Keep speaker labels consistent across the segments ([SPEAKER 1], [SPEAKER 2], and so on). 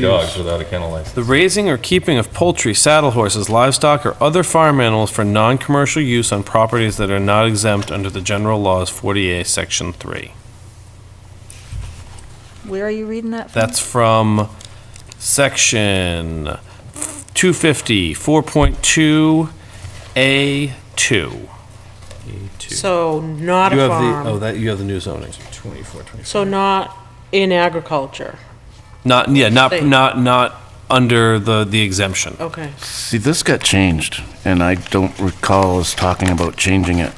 [SPEAKER 1] dogs without a kennel license.
[SPEAKER 2] The raising or keeping of poultry, saddle horses, livestock, or other farm animals for non-commercial use on properties that are not exempt under the general laws 40A, Section 3.
[SPEAKER 3] Where are you reading that from?
[SPEAKER 2] That's from Section 250, 4.2A2.
[SPEAKER 4] So not
[SPEAKER 2] You
[SPEAKER 4] a
[SPEAKER 2] have the, oh,
[SPEAKER 4] farm,
[SPEAKER 2] that, you have the new zoning.
[SPEAKER 4] so not in agriculture,
[SPEAKER 2] Not, yeah, not,
[SPEAKER 4] They-
[SPEAKER 2] not, not under the, the exemption.
[SPEAKER 4] okay.
[SPEAKER 5] See, this got changed, and I don't recall us talking about changing it.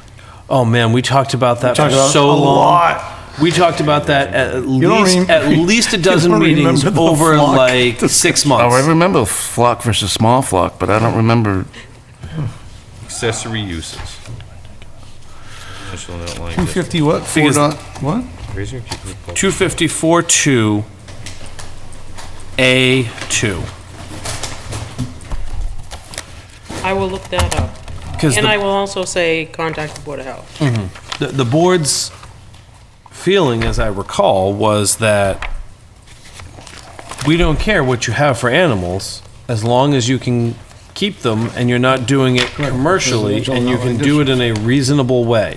[SPEAKER 2] Oh, man, we talked about that for so long. We talked about that at least,
[SPEAKER 6] rem-
[SPEAKER 2] at least a
[SPEAKER 6] you
[SPEAKER 2] dozen
[SPEAKER 6] don't
[SPEAKER 2] meetings
[SPEAKER 6] remember the
[SPEAKER 2] over
[SPEAKER 6] flock
[SPEAKER 2] like six
[SPEAKER 5] Oh,
[SPEAKER 2] months.
[SPEAKER 5] I remember flock versus small flock, but I don't remember.
[SPEAKER 1] Accessory uses. Initial note like
[SPEAKER 6] Two
[SPEAKER 1] that.
[SPEAKER 6] fifty what? Four
[SPEAKER 2] Because-
[SPEAKER 6] dot, what?
[SPEAKER 1] Raise your keep your pulse.
[SPEAKER 2] 254 2 A2.
[SPEAKER 4] I will look that up.
[SPEAKER 2] Because
[SPEAKER 4] And I will also say, contact the Board of Health.
[SPEAKER 2] the, the board's feeling, as I recall, was that we don't care what you have for animals as long as you can keep them and you're not doing it commercially
[SPEAKER 6] It's all
[SPEAKER 2] and you
[SPEAKER 6] not
[SPEAKER 2] can
[SPEAKER 6] like
[SPEAKER 2] do it in a reasonable way.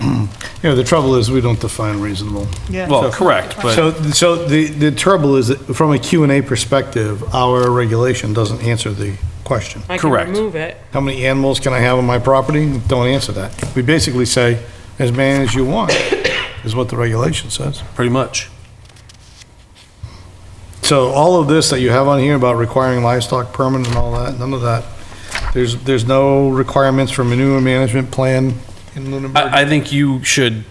[SPEAKER 7] Yeah, the trouble is, we don't define reasonable.
[SPEAKER 2] Well, correct, but
[SPEAKER 7] So, so the, the trouble is, that from a Q and A perspective, our regulation doesn't answer the question.
[SPEAKER 4] I can
[SPEAKER 2] Correct.
[SPEAKER 4] remove it.
[SPEAKER 7] How many animals can I have on my property? Don't answer that. We basically say, as many as you want, is what the regulation says.
[SPEAKER 2] pretty much.
[SPEAKER 7] So all of this that you have on here about requiring livestock permit and all that, none of that, there's, there's no requirements for manure management plan in Lunenburg.
[SPEAKER 2] I, I think you should,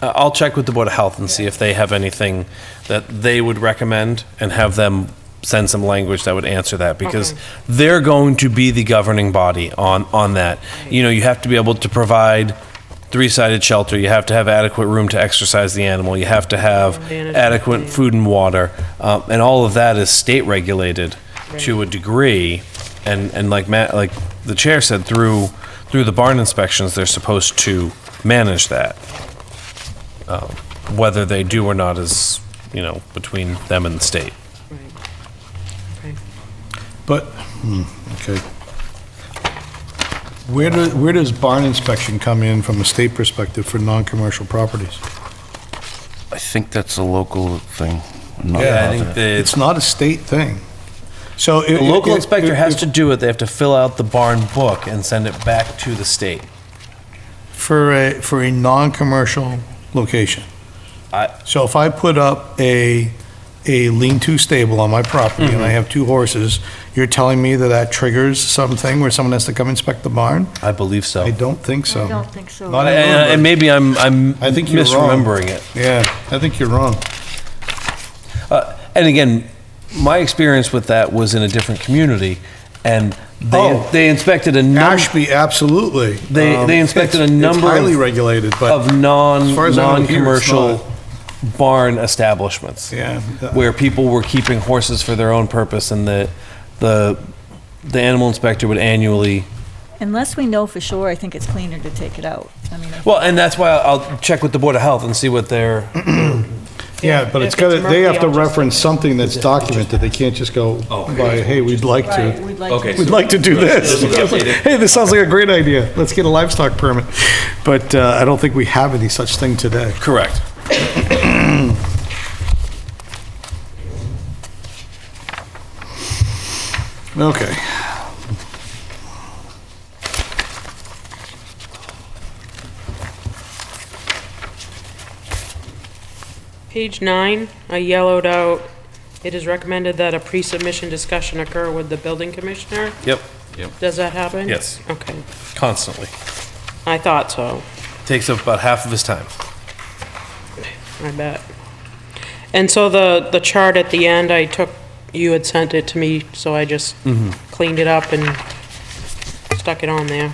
[SPEAKER 2] I- I'll check with the Board of Health and see if they have anything that they would recommend and have them send some language that would answer that because
[SPEAKER 4] Okay.
[SPEAKER 2] they're going to be the governing body on, on that. You know, you have to be able to provide three-sided shelter, you have to have adequate room to exercise the animal, you have to have
[SPEAKER 4] Management
[SPEAKER 2] adequate
[SPEAKER 4] plan.
[SPEAKER 2] food and water, um, and all of that is state regulated to a degree. And, and like Matt, like the chair said, through, through the barn inspections, they're supposed to manage that. Um, Whether they do or not is, you know, between them and the state.
[SPEAKER 4] Right.
[SPEAKER 7] But, hmm, okay. Where do, where does barn inspection come in from a state perspective for non-commercial properties?
[SPEAKER 5] I think that's a local thing. I'm not
[SPEAKER 2] I
[SPEAKER 5] positive.
[SPEAKER 2] think the,
[SPEAKER 7] It's not a state thing. So.
[SPEAKER 2] the local inspector has to do it, they have to fill out the barn book and send it back to the state.
[SPEAKER 7] For a, for a non-commercial location.
[SPEAKER 2] I-
[SPEAKER 7] So if I put up a, a lean-to stable on my property
[SPEAKER 2] Mm-hmm.
[SPEAKER 7] and I have two horses, you're telling me that that triggers something where someone has to come inspect the barn?
[SPEAKER 2] I believe so.
[SPEAKER 7] I don't think so.
[SPEAKER 3] I don't think so.
[SPEAKER 7] Not in
[SPEAKER 2] And and
[SPEAKER 7] Lunenburg.
[SPEAKER 2] maybe I'm, I'm
[SPEAKER 7] I think you're wrong.
[SPEAKER 2] misremembering it.
[SPEAKER 7] Yeah, I think you're wrong.
[SPEAKER 2] Uh, And again, my experience with that was in a different community, and they,
[SPEAKER 7] Oh.
[SPEAKER 2] they inspected a number
[SPEAKER 7] Ashby, absolutely.
[SPEAKER 2] They-
[SPEAKER 7] Um,
[SPEAKER 2] they inspected a
[SPEAKER 7] it's-
[SPEAKER 2] number
[SPEAKER 7] It's highly
[SPEAKER 2] of-
[SPEAKER 7] regulated, but.
[SPEAKER 2] of non,
[SPEAKER 7] as far as I'm aware, it's
[SPEAKER 2] non-commercial barn establishments.
[SPEAKER 7] Yeah. uh,
[SPEAKER 2] Where people were keeping horses for their own purpose, and the, the, the animal inspector would annually,
[SPEAKER 3] Unless we know for sure, I think it's cleaner to take it out. I mean, I-
[SPEAKER 2] well, and that's why I'll check with the Board of Health and see what their,
[SPEAKER 7] Yeah, but
[SPEAKER 4] if
[SPEAKER 7] it's got to,
[SPEAKER 4] it's
[SPEAKER 7] they have
[SPEAKER 4] murky,
[SPEAKER 7] to
[SPEAKER 4] I'll just-
[SPEAKER 7] reference something that's documented. They can't just go
[SPEAKER 2] Oh,
[SPEAKER 7] by, hey, we'd like
[SPEAKER 3] right,
[SPEAKER 7] to.
[SPEAKER 3] we'd like to.
[SPEAKER 7] We'd like to do this. Hey, this sounds like a great idea. Let's get a livestock permit. But uh, I don't think we have any such thing today.
[SPEAKER 2] correct.
[SPEAKER 7] Okay.
[SPEAKER 4] Page nine, I yellowed out, it is recommended that a pre-submission discussion occur with the building commissioner.
[SPEAKER 2] Yep,
[SPEAKER 4] Does that happen?
[SPEAKER 2] Yes.
[SPEAKER 4] Okay,
[SPEAKER 2] constantly.
[SPEAKER 4] I thought so,
[SPEAKER 2] Takes up about half of his time.
[SPEAKER 4] I bet. And so the, the chart at the end, I took, you had sent it to me, so I just cleaned it up and stuck it on there.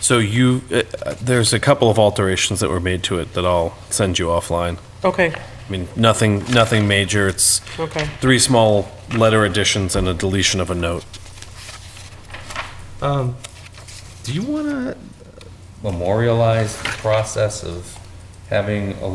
[SPEAKER 2] So you, uh, uh, there's a couple of alterations that were made to it that I'll send you offline.
[SPEAKER 4] Okay,
[SPEAKER 2] I mean, nothing, nothing major. It's
[SPEAKER 4] okay.
[SPEAKER 2] three small letter additions and a deletion of a note.
[SPEAKER 1] Um, do you wanna memorialize the process of having a